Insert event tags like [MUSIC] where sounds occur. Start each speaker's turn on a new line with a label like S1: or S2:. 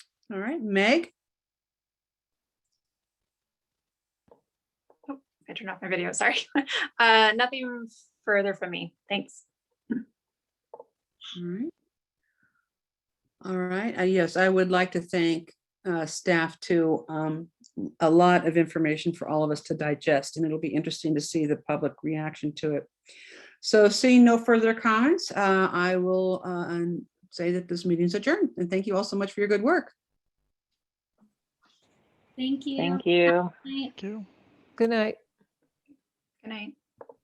S1: All right, Meg?
S2: I turned off my video, sorry. [LAUGHS] Uh, nothing further from me. Thanks.
S1: All right. All right, uh, yes, I would like to thank uh, staff too. Um, A lot of information for all of us to digest, and it'll be interesting to see the public reaction to it. So seeing no further comments, uh, I will uh, um, say that this meeting is adjourned, and thank you all so much for your good work.
S3: Thank you.
S4: Thank you.
S3: Night.
S5: Thank you.
S6: Good night.
S2: Good night.